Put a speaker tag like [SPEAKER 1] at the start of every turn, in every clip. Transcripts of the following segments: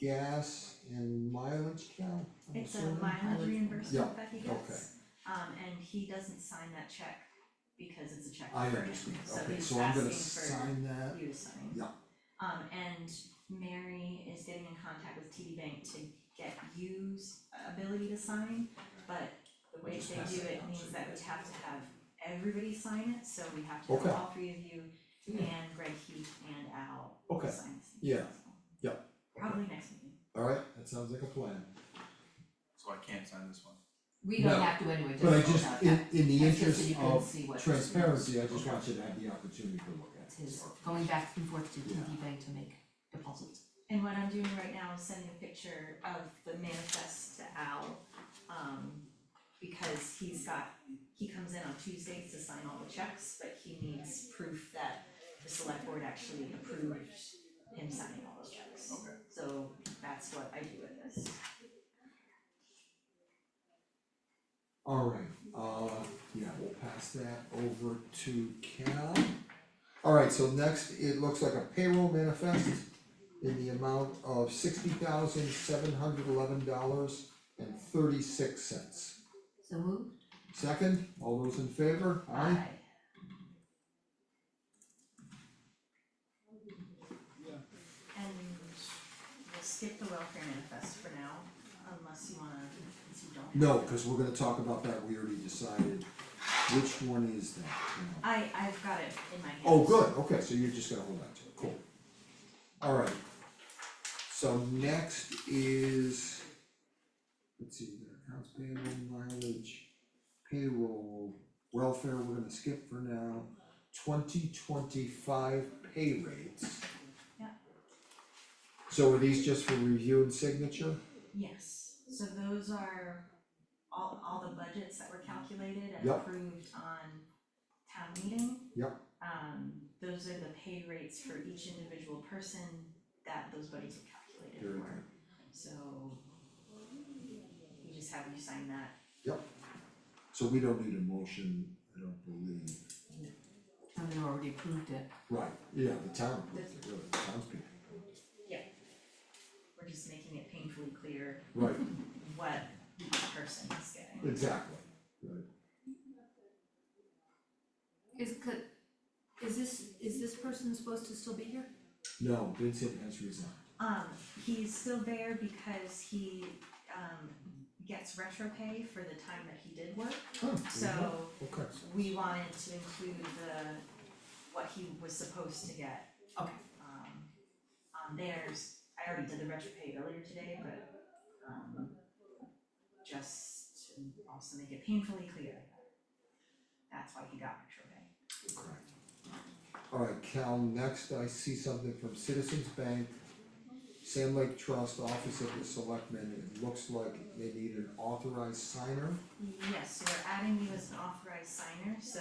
[SPEAKER 1] gas and mileage count? I'm
[SPEAKER 2] It's a
[SPEAKER 1] assuming?
[SPEAKER 2] mileage
[SPEAKER 1] Yeah,
[SPEAKER 2] reimbursement that he gets. Um, and he doesn't sign that check because it's a check for
[SPEAKER 1] I
[SPEAKER 2] him,
[SPEAKER 1] understand,
[SPEAKER 2] so
[SPEAKER 1] okay,
[SPEAKER 2] he's
[SPEAKER 1] so I'm gonna
[SPEAKER 2] asking
[SPEAKER 1] sign
[SPEAKER 2] for
[SPEAKER 1] that,
[SPEAKER 2] you to sign.
[SPEAKER 1] Yeah.
[SPEAKER 2] Um, and Mary is getting in contact with TD Bank to get you's ability to sign, but the way
[SPEAKER 1] Just
[SPEAKER 2] they
[SPEAKER 1] pass
[SPEAKER 2] do
[SPEAKER 1] that down
[SPEAKER 2] it
[SPEAKER 1] so
[SPEAKER 2] means
[SPEAKER 1] you
[SPEAKER 2] that
[SPEAKER 1] guys
[SPEAKER 2] we
[SPEAKER 1] can
[SPEAKER 2] have to
[SPEAKER 1] sign.
[SPEAKER 2] have everybody sign it, so we have to
[SPEAKER 1] Okay.
[SPEAKER 2] have all three of you
[SPEAKER 1] Hmm.
[SPEAKER 2] and Greg Heath and Al
[SPEAKER 1] Okay.
[SPEAKER 2] sign this.
[SPEAKER 1] Yeah. Yeah.
[SPEAKER 2] Probably next meeting.
[SPEAKER 1] alright, that sounds like a plan.
[SPEAKER 3] so I can't sign this one.
[SPEAKER 4] We don't
[SPEAKER 1] No,
[SPEAKER 4] have to anyway, just
[SPEAKER 1] But I
[SPEAKER 4] vote
[SPEAKER 1] just,
[SPEAKER 4] about
[SPEAKER 1] in
[SPEAKER 4] that.
[SPEAKER 1] in the
[SPEAKER 4] That's just so
[SPEAKER 1] interest
[SPEAKER 4] you can
[SPEAKER 1] of
[SPEAKER 4] see what-
[SPEAKER 1] transparency, I just want you to have the opportunity to look at
[SPEAKER 4] It's
[SPEAKER 1] it.
[SPEAKER 4] his going back and forth to TD Bank to make deposits.
[SPEAKER 2] And what I'm doing right now is sending a picture of the manifest to Al, um, because he's got, he comes in on Tuesdays to sign all the checks, but he needs proof that the select board actually approved him signing all those checks.
[SPEAKER 3] Okay.
[SPEAKER 2] So that's what I do with this.
[SPEAKER 1] Alright, uh, yeah, we'll pass that over to Cal. Alright, so next, it looks like a payroll manifest in the amount of sixty thousand seven hundred eleven dollars and thirty-six cents.
[SPEAKER 4] So moved?
[SPEAKER 1] Second, all those in favor, aye?
[SPEAKER 2] And we'll skip the welfare manifest for now, unless you wanna, since you don't.
[SPEAKER 1] No, cause we're gonna talk about that, we already decided, which one is that, you know?
[SPEAKER 2] I, I've got it in my hand.
[SPEAKER 1] Oh, good, okay, so you're just gonna hold on to it, cool. Alright. So next is, let's see, the accounts payable, mileage, payroll, welfare, we're gonna skip for now. Twenty twenty-five pay rates.
[SPEAKER 2] Yeah.
[SPEAKER 1] So are these just for review and signature?
[SPEAKER 2] Yes, so those are all, all the budgets that were calculated and
[SPEAKER 1] Yep.
[SPEAKER 2] approved on town meeting.
[SPEAKER 1] Yep.
[SPEAKER 2] Um, those are the pay rates for each individual person that those budgets were calculated
[SPEAKER 1] Very
[SPEAKER 2] for.
[SPEAKER 1] good.
[SPEAKER 2] So you just have you sign that.
[SPEAKER 1] So we don't need a motion, I don't believe.
[SPEAKER 4] And they already approved it.
[SPEAKER 1] Right, yeah, the town, really, the townspeople,
[SPEAKER 2] We're just making it painfully clear
[SPEAKER 1] right,
[SPEAKER 2] what each person is getting.
[SPEAKER 1] exactly, right.
[SPEAKER 5] Is could, is this, is this person supposed to still be here?
[SPEAKER 1] No, Vincent has resigned.
[SPEAKER 2] Um, he's still there because he, um, gets retro pay for the time that he did work. So
[SPEAKER 1] Okay.
[SPEAKER 2] we wanted to include the, what he was supposed to get.
[SPEAKER 4] Okay.
[SPEAKER 2] Um, on theirs, I already did the retro pay earlier today, but, um, just to also make it painfully clear. That's why he got retro pay.
[SPEAKER 1] Correct. Alright, Cal, next I see something from Citizens Bank, Sand Lake Trust, Office of the Selectmen, it looks like they need an authorized signer.
[SPEAKER 2] Yes, so we're adding you as an authorized signer, so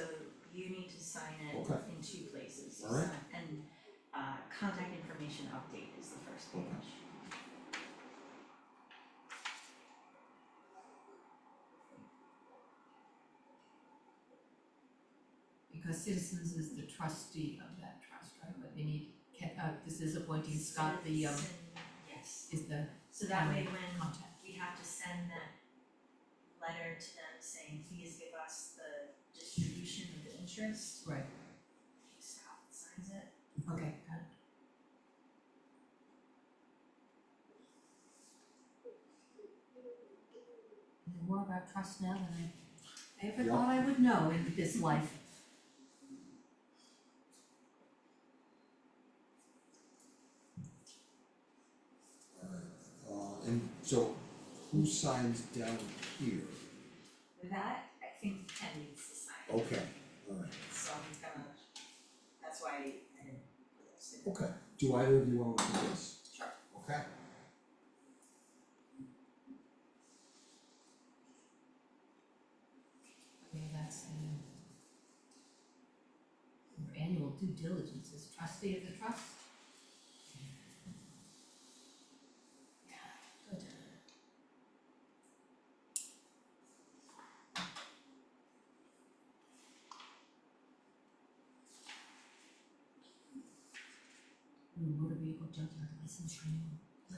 [SPEAKER 2] you need to sign it
[SPEAKER 1] Okay.
[SPEAKER 2] in two places. You
[SPEAKER 1] Alright.
[SPEAKER 2] sign- And, uh, contact information update is the first page.
[SPEAKER 1] Okay.
[SPEAKER 4] Because Citizens is the trustee of that trust, right? But they need, ca- uh, this is appointing Scott, the, um,
[SPEAKER 2] Citizen- Yes.
[SPEAKER 4] is the
[SPEAKER 2] So that way when
[SPEAKER 4] contact.
[SPEAKER 2] we have to send that letter to them saying, please give us the distribution of the interest,
[SPEAKER 4] Right,
[SPEAKER 2] Scott signs it.
[SPEAKER 4] okay, got it. Know More about trust now than I ever
[SPEAKER 1] Yeah.
[SPEAKER 4] thought I would know in this life.
[SPEAKER 1] Uh, and so who signs down here?
[SPEAKER 2] That, I think Ken needs to sign,
[SPEAKER 1] Okay, alright,
[SPEAKER 2] so I'm gonna, that's why I didn't put those in.
[SPEAKER 1] okay. Do either of you want to do this?
[SPEAKER 2] Sure.
[SPEAKER 1] Okay.
[SPEAKER 4] Okay, that's the your annual due diligence as trustee of the trust. Good. Ooh, motor vehicle junkyard license renewal.